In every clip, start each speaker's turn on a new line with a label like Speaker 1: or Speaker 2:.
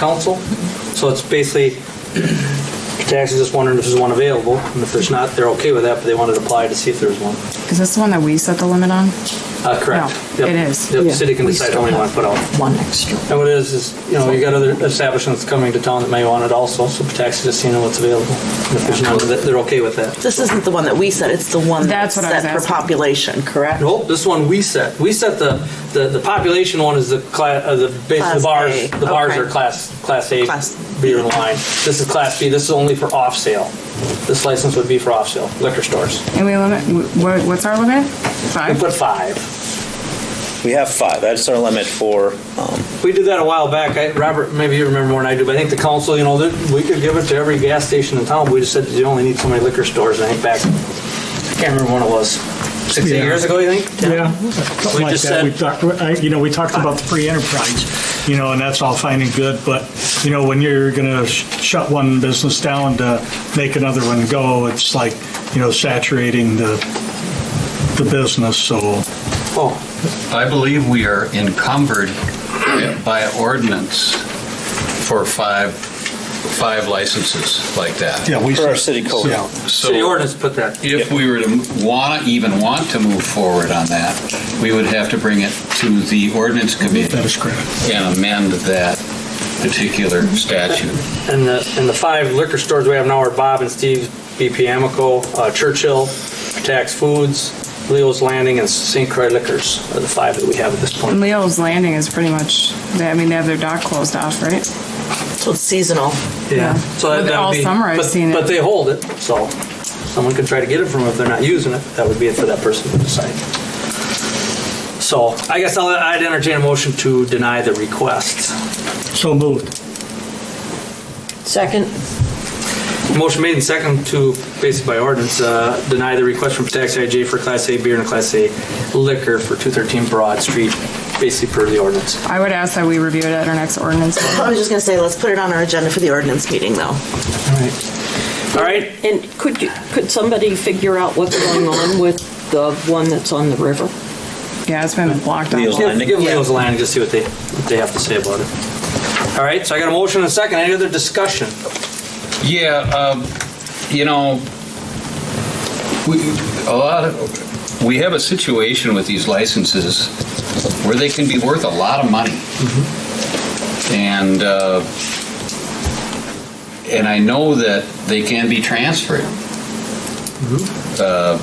Speaker 1: council. So it's basically, taxes just wondering if there's one available, and if there's not, they're okay with that, but they wanted to apply to see if there's one.
Speaker 2: Is this the one that we set the limit on?
Speaker 1: Uh, correct.
Speaker 2: No,
Speaker 1: Yep.
Speaker 2: it is.
Speaker 1: Yep,
Speaker 3: Yeah,
Speaker 1: the city can
Speaker 3: we
Speaker 1: decide how
Speaker 3: still
Speaker 1: many want to put out.
Speaker 3: One extra.
Speaker 1: And what it is, is, you know, you got other establishments coming to town that may want it also, so taxes just seeing what's available. And if there's none, that- they're okay with that.
Speaker 4: This isn't the one that we set, it's the one
Speaker 2: That's what I was
Speaker 4: set for
Speaker 2: asking.
Speaker 4: population, correct?
Speaker 1: Nope, this one we set. We set the, the, the population one is the class, uh, the, bas- the
Speaker 4: Class
Speaker 1: bars,
Speaker 4: A,
Speaker 1: the bars
Speaker 4: okay.
Speaker 1: are class, class A
Speaker 4: Class-
Speaker 1: beer and wine. This is class B, this is only for off sale. This license would be for off sale, liquor stores.
Speaker 2: And we limit, wh- wh- what's our limit?
Speaker 1: We
Speaker 2: Five?
Speaker 1: put five.
Speaker 5: We have five. That's our limit for, um,
Speaker 1: We did that a while back. I, Robert, maybe you remember more than I do, but I think the council, you know, that we could give it to every gas station in town. We just said that you only need so many liquor stores. And I think back, I can't remember when it was, six, eight
Speaker 6: Yeah.
Speaker 1: years ago, you think?
Speaker 6: Yeah,
Speaker 1: We
Speaker 6: something like
Speaker 1: just
Speaker 6: that. We
Speaker 1: said-
Speaker 6: talked, I- you know, we talked about the free enterprise, you know, and that's all fine and good, but, you know, when you're going to shut one business down to make another one go, it's like, you know, saturating the, the business, so.
Speaker 1: Oh,
Speaker 7: I believe we are encumbered by ordinance for five, five licenses like that.
Speaker 6: Yeah, we
Speaker 5: for our city code.
Speaker 6: Yeah.
Speaker 7: So
Speaker 1: city ordinance put that.
Speaker 7: If we were to want, even want to move forward on that, we would have to bring it to the ordinance
Speaker 6: That
Speaker 7: committee
Speaker 6: is correct.
Speaker 7: and amend that particular statute.
Speaker 1: And the, and the five liquor stores we have now are Bob and Steve's, BP Amico, uh, Churchill, Tax Foods, Leo's Landing, and St. Croix Liquors are the five that we have at this point.
Speaker 2: Leo's Landing is pretty much, they- I mean, they have their dock closed off, right?
Speaker 4: So it's seasonal.
Speaker 1: Yeah. So that,
Speaker 2: Well,
Speaker 1: that
Speaker 2: all
Speaker 1: would be,
Speaker 2: summer I've
Speaker 1: but,
Speaker 2: seen it.
Speaker 1: But they hold it, so someone could try to get it from them if they're not using it. That would be it for that person to decide. So I guess I'll, I'd entertain a motion to deny the request.
Speaker 6: So moved.
Speaker 3: Second?
Speaker 1: Motion made and second to, basically by ordinance, uh, deny the request from Tax IJ for Class A beer and Class A liquor for 213 Broad Street, basically per the ordinance.
Speaker 2: I would ask that we review it at our next ordinance.
Speaker 4: I was just gonna say, let's put it on our agenda for the ordinance meeting, though.
Speaker 1: All right. All right.
Speaker 3: And could you, could somebody figure out what's going on with the one that's on the river?
Speaker 2: Yeah, it's been blocked off.
Speaker 5: Leo's
Speaker 1: Give,
Speaker 5: Landing.
Speaker 1: give Leo's Landing to see what they, what they have to say about it. All right, so I got a motion and a second. Any other discussion?
Speaker 7: Yeah, um, you know, we, a lot of, we have a situation with these licenses where they can be worth a lot of money. And, uh, and I know that they can be transferred. Uh,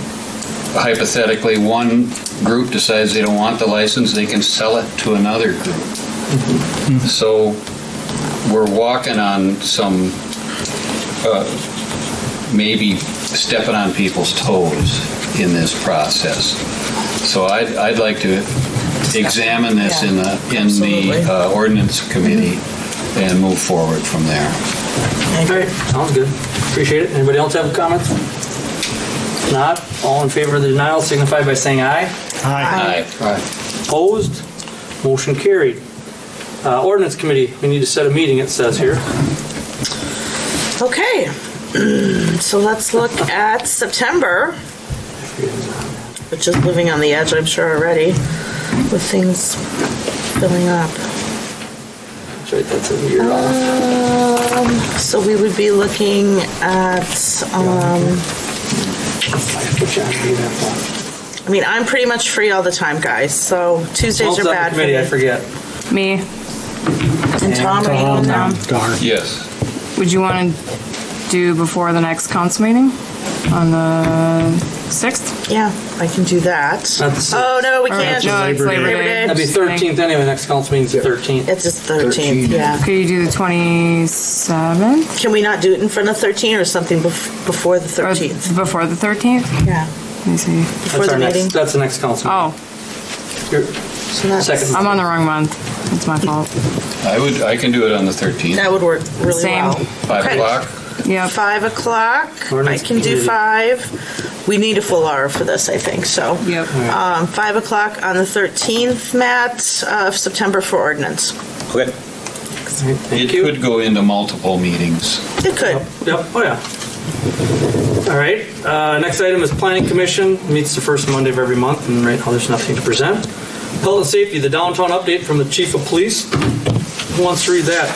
Speaker 7: Hypothetically, one group decides they don't want the license, they can sell it to another group. So we're walking on some uh, maybe stepping on people's toes in this process. So I'd, I'd like to examine this in the, in
Speaker 4: Absolutely.
Speaker 7: the uh, ordinance committee and move forward from there.
Speaker 1: All right, sounds good. Appreciate it. Anybody else have comments? Not? All in favor of the denial signify by saying aye.
Speaker 6: Hi.
Speaker 7: Aye.
Speaker 1: Opposed? Motion carried. Uh, Ordinance Committee, we need to set a meeting, it says here.
Speaker 4: Okay, so let's look at September, which is living on the edge, I'm sure already, with things filling up.
Speaker 1: That's right, that's a year off.
Speaker 4: Um, so we would be looking at, um,
Speaker 1: Put you on the event phone.
Speaker 4: I mean, I'm pretty much free all the time, guys, so Tuesdays
Speaker 1: Who's
Speaker 4: are
Speaker 1: on the
Speaker 4: bad for me.
Speaker 1: Committee, I forget.
Speaker 2: Me,
Speaker 4: And Tom, are you going down?
Speaker 6: Darn.
Speaker 7: Yes.
Speaker 2: would you want to do before the next council meeting on the 6th?
Speaker 4: Yeah, I can do that.
Speaker 1: That's-
Speaker 4: Oh, no, we
Speaker 2: Or-
Speaker 4: can't.
Speaker 2: No, it's
Speaker 6: Labor Day.
Speaker 2: Labor Day.
Speaker 1: That'd be 13th anyway, next council meeting's the 13th.
Speaker 4: It's just 13th, yeah.
Speaker 2: Could you do the 27th?
Speaker 4: Can we not do it in front of 13 or something bef- before the
Speaker 2: Or
Speaker 4: 13th?
Speaker 2: Before the 13th?
Speaker 4: Yeah,
Speaker 2: Let me see.
Speaker 4: before
Speaker 1: That's
Speaker 4: the
Speaker 1: our
Speaker 4: meeting.
Speaker 1: next, that's the next council.
Speaker 2: Oh,
Speaker 1: Your
Speaker 4: So that's-
Speaker 1: Second.
Speaker 2: I'm on the wrong month. It's my fault.
Speaker 7: I would, I can do it on the 13th,
Speaker 4: That would work really
Speaker 2: Same.
Speaker 4: well.
Speaker 7: 5
Speaker 4: Okay.
Speaker 7: o'clock.
Speaker 2: Yep.
Speaker 4: Five o'clock. I
Speaker 1: Ordinance
Speaker 4: can do
Speaker 1: committee.
Speaker 4: five. We need a full hour for this, I think, so.
Speaker 2: Yep.
Speaker 4: Um, five o'clock on the 13th, Matt, of September for ordinance.
Speaker 5: Okay.
Speaker 7: It could go into multiple meetings.
Speaker 4: It could.
Speaker 1: Yep, oh yeah. All right, uh, next item is planning commission, meets the first Monday of every month, and right now there's nothing to present. Public safety, the downtown update from the chief of police. Who wants to read that?